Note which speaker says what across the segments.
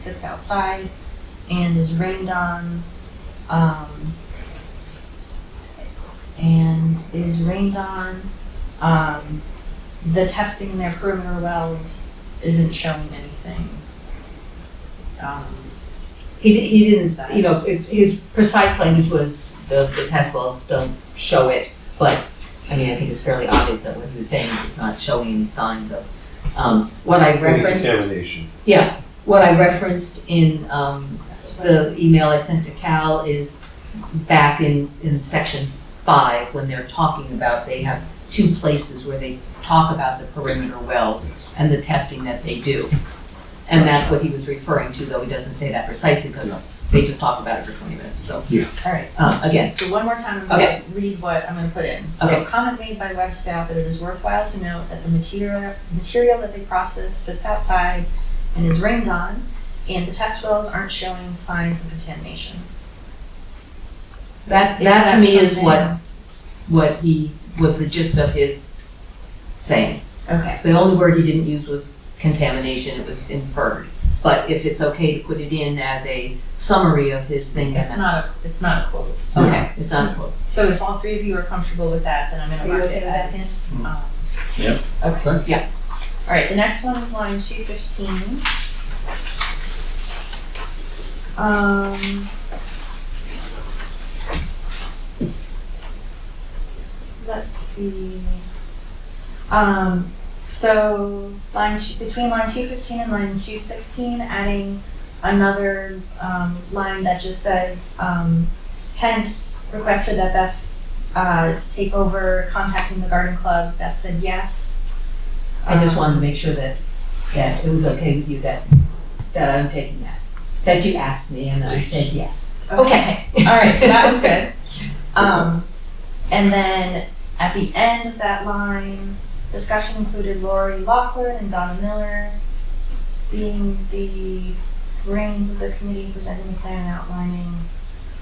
Speaker 1: sits outside and is rained on, um, and is rained on. Um, the testing in their perimeter wells isn't showing anything. Um,
Speaker 2: He, di- he didn't, you know, it- his precise language was the, the test wells don't show it, but, I mean, I think it's fairly obvious that what he was saying is it's not showing any signs of. Um, what I referenced,
Speaker 3: Contamination.
Speaker 2: what I referenced in, um, the email I sent to Cal is back in, in section five, when they're talking about, they have two places where they talk about the perimeter wells and the testing that they do. And that's what he was referring to, though he doesn't say that precisely, because they just talk about it for twenty minutes, so,
Speaker 1: All right.
Speaker 2: um, again.
Speaker 1: So one more time, I'm gonna
Speaker 2: Okay.
Speaker 1: read what I'm gonna put in. So
Speaker 2: Okay.
Speaker 1: comment made by web staff that it is worthwhile to note that the material, material that they process sits outside and is rained on, and the test wells aren't showing signs of contamination.
Speaker 2: That, that to me is what,
Speaker 1: something-
Speaker 2: what he, was the gist of his saying.
Speaker 1: Okay,
Speaker 2: The only word he didn't use was contamination, it was inferred. But if it's okay to put it in as a summary of his thing, then
Speaker 1: it's
Speaker 2: that's.
Speaker 1: not, a it's not a quote.
Speaker 2: Okay, it's not a quote.
Speaker 1: So if all three of you are comfortable with that, then I'm
Speaker 2: Are
Speaker 1: gonna
Speaker 2: you
Speaker 1: mark
Speaker 2: okay
Speaker 1: it
Speaker 2: with that,
Speaker 1: as.
Speaker 3: Ken?
Speaker 1: um,
Speaker 3: Yep.
Speaker 1: Okay.
Speaker 2: Yeah.
Speaker 1: All right, the next one is line two fifteen. Um. Let's see. Um, so line, two- between line two fifteen and line two sixteen, adding another, um, line that just says, um, Hence requested that Beth uh, take over contacting the garden club. Beth said yes.
Speaker 2: I just wanted to make sure that, that it was okay with you that, that I'm taking that. That you asked me and I said yes. Okay.
Speaker 1: All right, so that was good. Um, and then at the end of that line, discussion included Lori Lockwood and Donna Miller being the brains of the committee presenting the plan and outlining.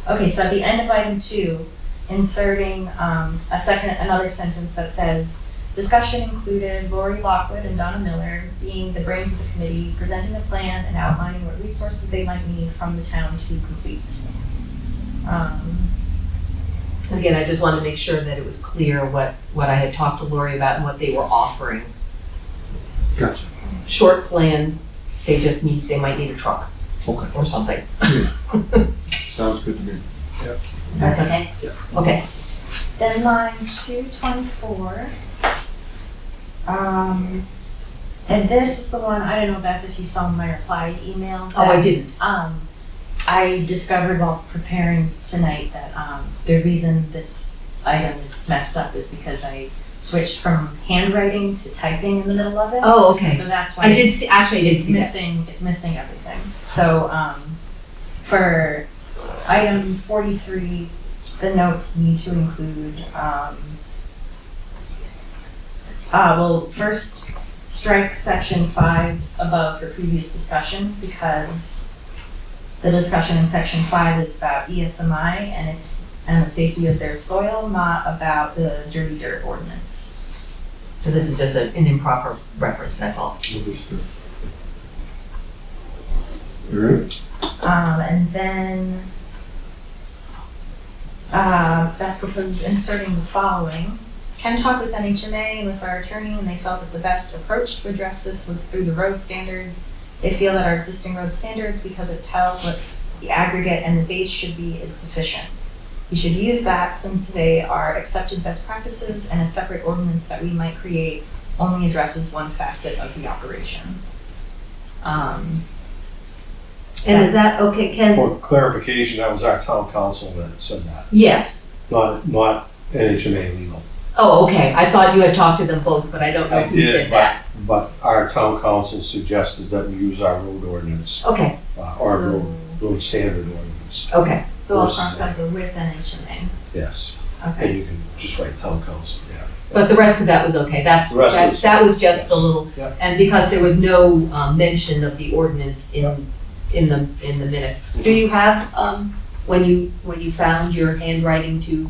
Speaker 1: Okay, so at the end of item two, inserting um, a second, another sentence that says, discussion included Lori Lockwood and Donna Miller being the brains of the committee presenting the plan and outlining what resources they might need from the town to complete. Um,
Speaker 2: Again, I just wanted to make sure that it was clear what, what I had talked to Lori about and what they were offering.
Speaker 3: Gotcha.
Speaker 2: Short plan, they just need, they might need a truck
Speaker 3: Okay,
Speaker 2: or something.
Speaker 3: sounds good to me.
Speaker 2: That's okay?
Speaker 3: Yeah.
Speaker 2: Okay,
Speaker 1: Then line two twenty-four. Um, and this is the one, I don't know, Beth, if you saw my reply email.
Speaker 2: oh, I
Speaker 1: that,
Speaker 2: didn't.
Speaker 1: Um, I discovered while preparing tonight that, um, the reason this item is messed up is because I switched from handwriting to typing in the middle of it.
Speaker 2: Oh, okay.
Speaker 1: So that's why.
Speaker 2: I did see, actually, I did
Speaker 1: It's
Speaker 2: see that.
Speaker 1: missing, it's missing everything. So, um, for item forty-three, the notes need to include, um, uh, well, first, strike section five above for previous discussion, because the discussion in section five is about E ESMI and it's, and the safety of their soil, not about the dirty dirt ordinance.
Speaker 2: So this is just a- an improper reference, that's all.
Speaker 3: Understood. All right,
Speaker 1: Um, and then, uh, Beth proposes inserting the following. Ken talked with NHMA and with our attorney, and they felt that the best approach to address this was through the road standards. They feel that our existing road standards, because it tells what the aggregate and the base should be, is sufficient. We should use that since they are accepted best practices, and a separate ordinance that we might create only addresses one facet of the operation. Um,
Speaker 2: And is that, okay, Ken?
Speaker 4: For clarification, that was our town council that said that,
Speaker 2: Yes.
Speaker 4: not, not NHMA legal.
Speaker 2: Oh, okay, I thought you had talked to them both, but I don't know
Speaker 4: I
Speaker 2: who said
Speaker 4: did,
Speaker 2: that.
Speaker 4: but, but our town council suggested that we use our road ordinance,
Speaker 2: Okay,
Speaker 4: uh, our
Speaker 1: So-
Speaker 4: road, road standard ordinance,
Speaker 2: okay,
Speaker 1: So I'll
Speaker 4: Versus
Speaker 1: cross out the with and HMA.
Speaker 4: yes.
Speaker 1: Okay.
Speaker 4: And you can just write town council, yeah.
Speaker 2: but the rest of that was okay, that's,
Speaker 4: The rest
Speaker 2: that,
Speaker 4: is-
Speaker 2: that was just the
Speaker 4: yes.
Speaker 2: little,
Speaker 4: Yep.
Speaker 2: and because there was no, um, mention of the ordinance in, in the, in the minutes. Do you have, um, when you, when you found your handwriting to,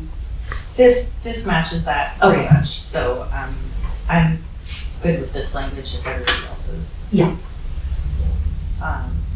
Speaker 1: This, this matches that pretty
Speaker 2: Okay.
Speaker 1: much, so, um, I'm good with this language if everybody else is.
Speaker 2: Yeah.
Speaker 1: Um,